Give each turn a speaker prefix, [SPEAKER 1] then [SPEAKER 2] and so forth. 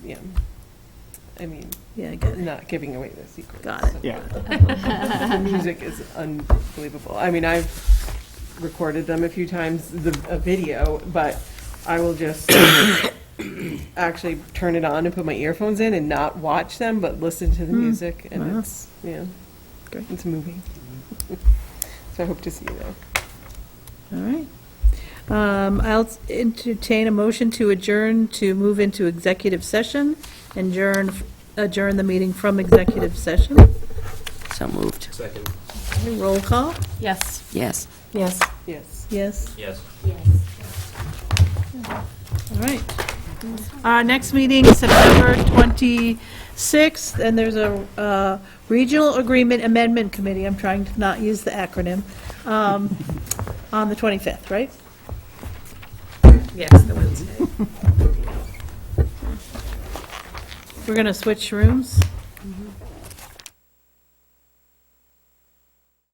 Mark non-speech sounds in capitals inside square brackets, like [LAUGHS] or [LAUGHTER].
[SPEAKER 1] yeah. I mean,
[SPEAKER 2] Yeah, I got it.
[SPEAKER 1] not giving away the secrets.
[SPEAKER 2] Got it.
[SPEAKER 3] Yeah.
[SPEAKER 1] The music is unbelievable. I mean, I've recorded them a few times, the, a video, but I will just [COUGHS] actually turn it on and put my earphones in and not watch them, but listen to the
[SPEAKER 2] Hmm.
[SPEAKER 1] music, and
[SPEAKER 2] Wow.
[SPEAKER 1] it's, yeah,
[SPEAKER 2] Great.
[SPEAKER 1] it's moving. [LAUGHS] So I hope to see you there.
[SPEAKER 2] All right. Um, I'll entertain a motion to adjourn to move into executive session, adjourn, adjourn the meeting from executive session.
[SPEAKER 4] So moved.
[SPEAKER 5] Second.
[SPEAKER 2] Roll call,
[SPEAKER 6] Yes.
[SPEAKER 4] Yes.
[SPEAKER 6] Yes.
[SPEAKER 1] Yes.
[SPEAKER 2] yes,
[SPEAKER 5] Yes.
[SPEAKER 2] all right. Our next meeting, September 26th, and there's a uh, Regional Agreement Amendment Committee, I'm trying to not use the acronym, um, on the 25th, right?
[SPEAKER 6] Yes, the Wednesday.
[SPEAKER 2] We're going to switch rooms.